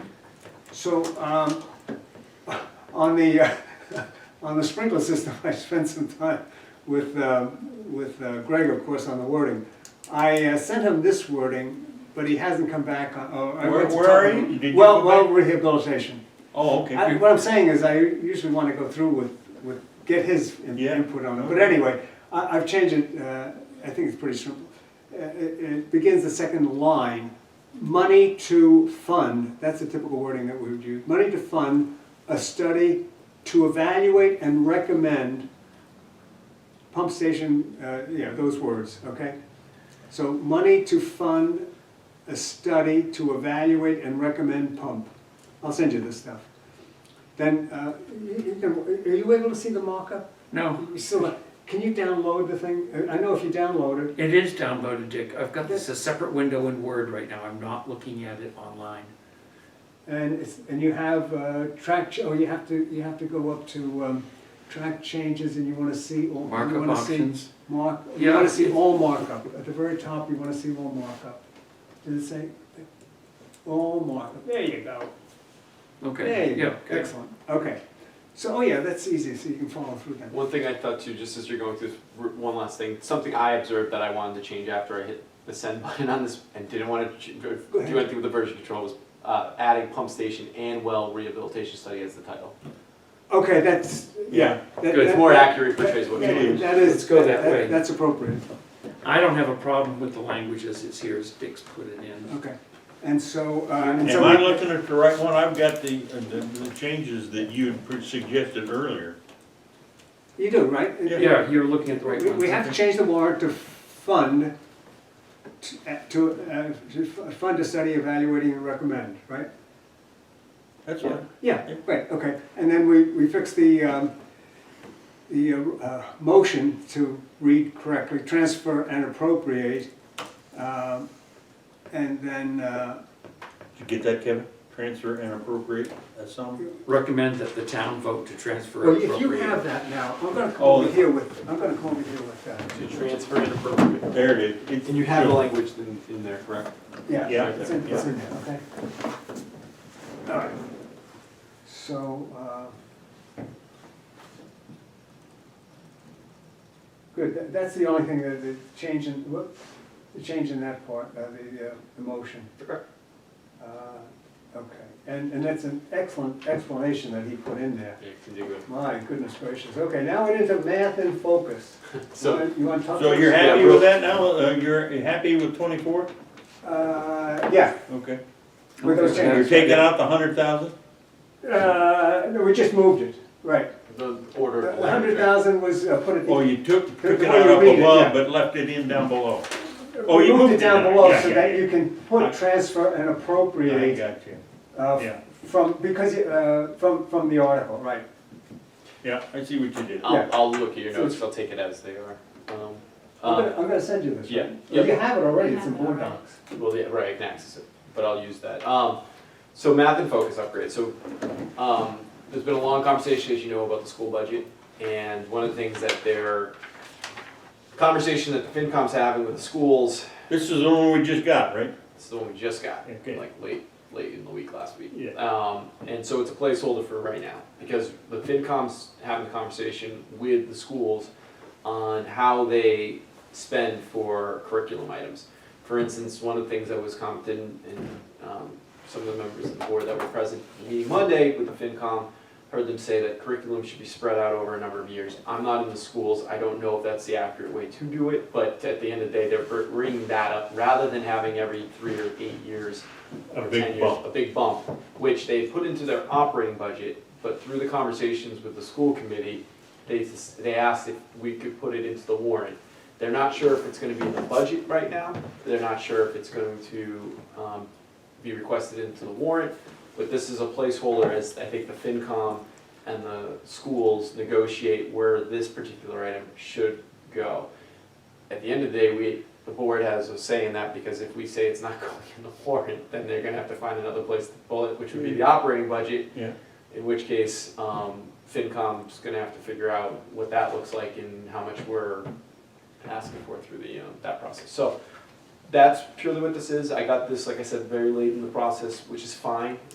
So, um, on the, uh, on the sprinkler system, I spent some time with, uh, with uh, Greg, of course, on the wording. I uh, sent him this wording, but he hasn't come back on, oh, I Where- went to where talk are to you? him. Did you Well, go well, back? rehabilitation. Oh, okay. I- What I'm saying is, I usually want to go through with, with, get his in- Yeah. input on it, but anyway, I, I've changed it, uh, I think it's pretty simple. Uh, It, it begins the second line, money to fund, that's the typical wording that we would use, money to fund a study to evaluate and recommend pump station, uh, yeah, those words, okay? So money to fund a study to evaluate and recommend pump. I'll send you this stuff. Then, uh, you- you can- are you able to see the mock-up? No, You still- uh, Can you download the thing? Uh, I I know if you download it, it is downloaded, Dick. I've got this a separate window in Word right now. I'm not looking at it online. and it's, and you have uh, track, ch- oh, you have to, you have to go up to um, track changes and you want to see all. you Markup wanna see options. Mark, you Yeah. want to see all markup. At the very top, you want to see all markup. Does it say? All markup. There you go. There Okay, you yeah, go. good. Excellent. Okay. So, oh yeah, that's easy, so you can follow through that. One thing I thought too, just as you're going through, this, one last thing, something I observed that I wanted to change after I hit the send button on this and didn't want to ch- do ahead. anything with the version control was uh, adding pump station and well rehabilitation study as the title. Okay, that's, yeah. that- Good. It's that- more that- accurate portrays what we that- need. That is. Let's go that way. That's appropriate, I don't have a problem with the language as it's here, as Dick's put it in. okay. And so, uh, and Am I so, looking at the right one? I've got the, uh, the, the changes that you had pre- suggested earlier. you do, right? Yeah, you're looking at the right We one. we have to change the warrant to fund, t- uh, to, uh, to f- fund a study evaluating and recommend, right? That's right. Yeah, right, okay. And then we, we fix the, um, the, uh, uh, motion to read correctly, transfer and appropriate. um, And then, uh, Did you get that, Kevin? Transfer and appropriate, that's something? Recommend that the town vote to transfer well, and if you have appropriate. that now, I'm gonna come over here with, I'm gonna come over here with that. To transfer and appropriate. There it is. It's- And you have the language in, in there, correct? Yeah, Yeah, it's in, it's yeah. in there, okay? All right. So, uh, good, tha- that's the only thing that, the change in, whoop, the change in that part, uh, the, uh, the motion. Okay. Uh, Okay, and, and that's an excellent explanation that he put in there. Yeah, contiguous. My goodness gracious, okay, now we're into math in focus. You So, wanna- You wanna talk? So to you're us? happy with that now? Uh, you're happy with twenty-four? Uh, yeah, Okay. with those Okay. You're changes. taking out the hundred thousand? Uh, no, we just moved it, right. the order of The the hundred language. thousand was uh, put at Oh, the, you took, The- took the it way out you up read it, yeah. above, but left it in down below. oh, we you moved it moved it down down. below Yeah, so yeah, that yeah. you can put Right. transfer and I appropriate got you. uh, Yeah. from, because, it, uh, from, from the article, right. Yeah, I see what you did. Yeah. I'll, I'll look at your notes, I'll take it as they are. Uh, Um, I'm um, gonna, I'm gonna send you this. yeah, right? yeah. You have it already, I it's in have it board already. docs. Well, yeah, right, I can access it, but I'll use that. Um, so math and focus upgrade, so, um, there's been a long conversation, as you know, about the school budget, and one of the things that their conversation that the FinCom's having with the schools, This is the one we just got, right? this is the one we just got, Okay. like late, late in the week last week. Yeah. Um, and so it's a placeholder for right now, because the FinCom's having a conversation with the schools on how they spend for curriculum items. For instance, one of the things that was commented in, um, some of the members of the board that were present at the meeting Monday with the FinCom, heard them say that curriculum should be spread out over a number of years. I'm not in the schools, I don't know if that's the accurate way to do it, but at the end of the day, they're br- bringing that up, rather than having every three or eight years A or big 10 years, bump. A big bump, which they put into their operating budget, but through the conversations with the school committee, they, s- they asked if we could put it into the warrant. They're not sure if it's gonna be in the budget right now, they're not sure if it's going to, um, be requested into the warrant, but this is a placeholder as I think the FinCom and the schools negotiate where this particular item should go. At the end of the day, we, the board has a say in that, because if we say it's not going in the warrant, then they're gonna have to find another place to pull it, which would be the operating budget. Yeah. In which case, um, FinCom's gonna have to figure out what that looks like and how much we're asking for through the, um, that process. So, that's purely what this is, I got this, like I said, very late in the process, which is fine,